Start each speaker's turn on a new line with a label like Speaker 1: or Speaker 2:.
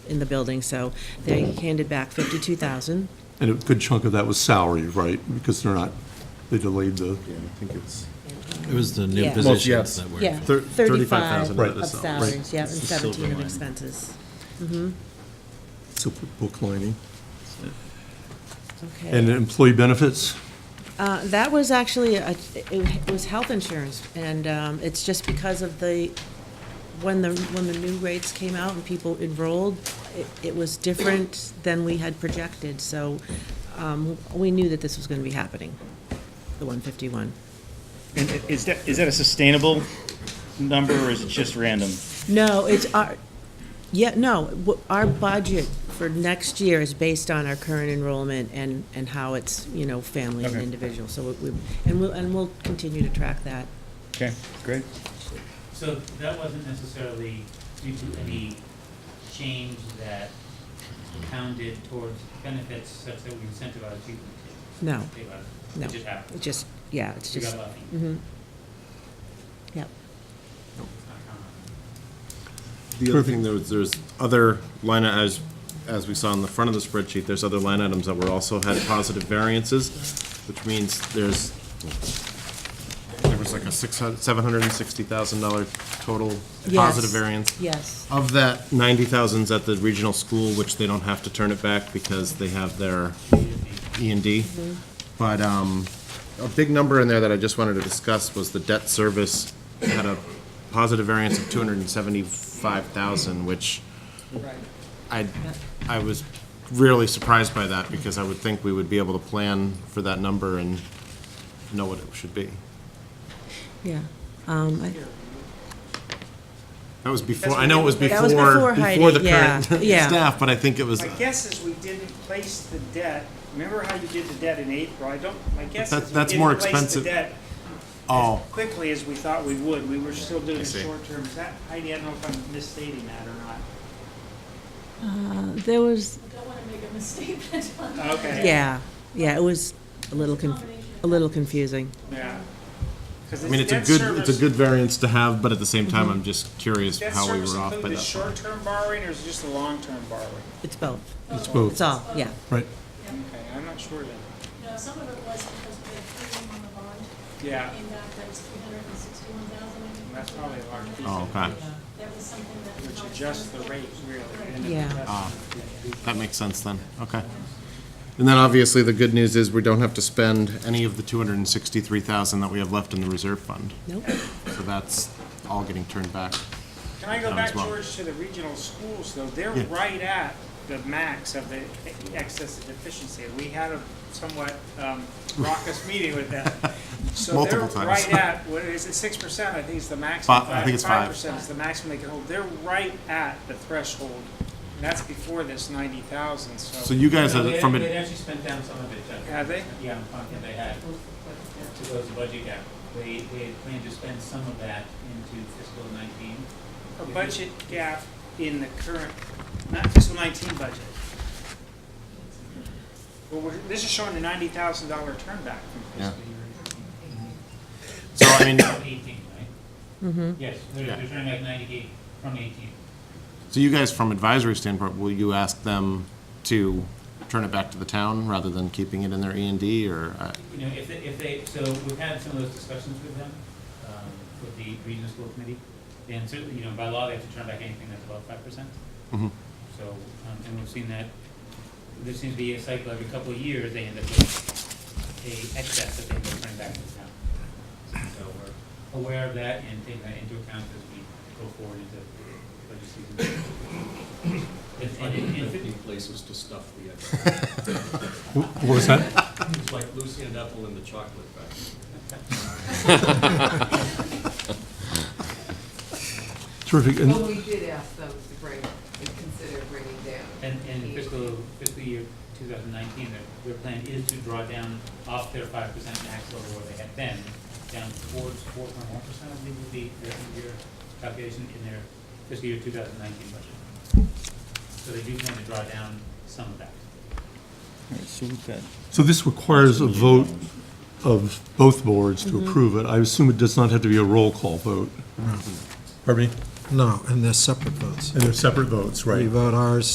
Speaker 1: in the building, so they handed back 52,000.
Speaker 2: And a good chunk of that was salary, right? Because they're not, they delayed the,
Speaker 3: Yeah, I think it's.
Speaker 4: It was the new
Speaker 1: Yeah. Most-
Speaker 4: positions
Speaker 3: yes.
Speaker 4: that were.
Speaker 1: Yeah,
Speaker 3: Thir-
Speaker 1: 35
Speaker 3: 35,000
Speaker 1: of
Speaker 3: of the salary.
Speaker 1: salaries, yeah, and
Speaker 4: It's the silver
Speaker 1: 17 of
Speaker 4: lining.
Speaker 1: expenses.
Speaker 2: super book lining. And
Speaker 1: Okay.
Speaker 2: employee benefits,
Speaker 1: Uh, That was actually, a- it was health insurance, and um, it's just because of the, when the, when the new rates came out and people enrolled, it- it was different than we had projected, so um, we knew that this was going to be happening, the 151.
Speaker 5: And i- is that, is that a sustainable number, or is it just random?
Speaker 1: No, it's our, yeah, no, w- our budget for next year is based on our current enrollment and, and how it's, you know, family and
Speaker 5: Okay.
Speaker 1: individual, so we, we- and we'll, and we'll continue to track that.
Speaker 5: Okay, great.
Speaker 6: So that wasn't necessarily due to any change that counted towards benefits such that we incentivized people to
Speaker 1: No,
Speaker 6: take less.
Speaker 1: No.
Speaker 6: It just happened.
Speaker 1: it's just, yeah, it's
Speaker 6: We
Speaker 1: just,
Speaker 6: got lucky.
Speaker 1: mhm. Yep,
Speaker 6: It's not common.
Speaker 3: The other thing, there was, there's other line, as, as we saw in the front of the spreadsheet, there's other line items that were also had positive variances, which means there's, there was like a six hundred, seven hundred and sixty thousand dollar total positive
Speaker 1: Yes.
Speaker 3: variance.
Speaker 1: yes,
Speaker 3: Of that, ninety thousand's at the regional school, which they don't have to turn it back because they have their E and D. But, um, a big number in there that I just wanted to discuss was the debt service had a positive variance of two hundred and seventy-five thousand, which I, I was really surprised by that because I would think we would be able to plan for that number and know what it should be.
Speaker 1: yeah. Um, I-
Speaker 3: That was before, I know it was before,
Speaker 1: That was before Heidi,
Speaker 3: before the
Speaker 1: yeah,
Speaker 3: current
Speaker 1: yeah.
Speaker 3: staff, but I think it was.
Speaker 7: My guess is we didn't place the debt, remember how you did the debt in April? I don't, my guess
Speaker 3: That-
Speaker 7: is we
Speaker 3: that's more
Speaker 7: didn't place the
Speaker 3: expensive.
Speaker 7: debt as
Speaker 3: Oh,
Speaker 7: quickly as we thought we would. We were still doing
Speaker 3: I
Speaker 7: the
Speaker 3: see.
Speaker 7: short term. Is that, Heidi, I don't know if I'm misstating that or
Speaker 1: There was,
Speaker 8: I don't want to make a misstatement on
Speaker 7: not. Okay.
Speaker 1: yeah, yeah, it was a little, conf- a little confusing.
Speaker 7: Yeah. 'Cause
Speaker 3: I mean, it's a
Speaker 7: debt
Speaker 3: good, it's a
Speaker 7: service-
Speaker 3: good variance to have, but at the same time, I'm just curious
Speaker 7: Debt
Speaker 3: how we
Speaker 7: service
Speaker 3: were off uh, by
Speaker 7: include the
Speaker 3: that.
Speaker 7: short term borrowing or is it just the long term borrowing?
Speaker 1: It's both,
Speaker 2: it's both,
Speaker 1: it's all, yeah.
Speaker 2: right?
Speaker 7: Okay, I'm not sure then.
Speaker 8: No, some of it was because we had three on the bond.
Speaker 7: Yeah,
Speaker 8: Came back, that was three hundred and sixty-one thousand.
Speaker 7: that's probably a large piece.
Speaker 3: Oh, okay,
Speaker 8: That was something that. we
Speaker 7: Which
Speaker 8: might-
Speaker 7: adjusts the rate really. and it
Speaker 1: Yeah.
Speaker 7: adjusts-
Speaker 3: that makes sense then, okay. And then obviously, the good news is we don't have to spend any of the two hundred and sixty-three thousand that we have left in the reserve fund,
Speaker 1: Nope,
Speaker 3: so that's all getting turned back.
Speaker 7: Can I go
Speaker 3: Um, as
Speaker 7: back,
Speaker 3: well.
Speaker 7: George, to the regional schools, though? They're
Speaker 3: Yeah.
Speaker 7: right at the max of the excess and deficiency. We had a somewhat um, raucous meeting with them. So they're
Speaker 3: Multiple times.
Speaker 7: right at, what is it, six percent, I think is the maximum.
Speaker 3: Fi- I think it's five.
Speaker 7: percent is the maximum they can hold. They're right at the threshold, and that's before this ninety thousand,
Speaker 3: So
Speaker 7: so.
Speaker 3: you guys,
Speaker 6: No,
Speaker 3: are
Speaker 6: they-
Speaker 3: from,
Speaker 6: They'd
Speaker 3: a-
Speaker 6: actually spent down some of it, Chuck.
Speaker 7: Have they?
Speaker 6: Yeah, I'm confident they had, to close the budget gap. They, they had planned to spend some of that into fiscal nineteen.
Speaker 7: A budget gap in the current, not fiscal nineteen budget. Well, we're- this is showing a ninety thousand dollar turn back from
Speaker 3: yeah.
Speaker 6: fiscal year
Speaker 3: So I mean,
Speaker 6: Eighteen, right? Mm-hmm. Yes, they're, they're turning back ninety-eight from eighteen.
Speaker 3: so you guys, from advisory standpoint, will you ask them to turn it back to the town rather than keeping it in their E and D, or? uh,
Speaker 6: You know, if they, if they, so we've had some of those discussions with them, um, with the regional school committee. And certainly, you know, by law, they have to turn back anything that's above five percent.
Speaker 3: Mhm.
Speaker 6: So, um, and we've seen that, there seems to be a cycle every couple of years, they end up with a excess that they end up turning back to the town. So we're aware of that and taking that into account as we go forward into budget season. It's like
Speaker 9: fifty places to stuff the egg.
Speaker 2: Wh- What was that?
Speaker 9: It's like Lucy and Ethel in the chocolate factory.
Speaker 2: Terrific.
Speaker 10: Well,
Speaker 2: And
Speaker 10: we did ask them to bring, to consider bringing down.
Speaker 6: And, and fiscal, fiscal year two thousand nineteen, their, their plan is to draw down off their five percent max level where they had been, down towards four point one percent, I believe would be their end year calculation in their fiscal year two thousand nineteen budget. So they do plan to draw down some of that.
Speaker 5: So we've got
Speaker 2: so this requires a vote of both boards
Speaker 4: Mm-hmm.
Speaker 2: to approve it. I assume it does not have to be a roll call vote. Pardon me?
Speaker 4: Mm-hmm. No, and they're separate votes.
Speaker 2: And they're separate votes, right?
Speaker 4: You vote ours,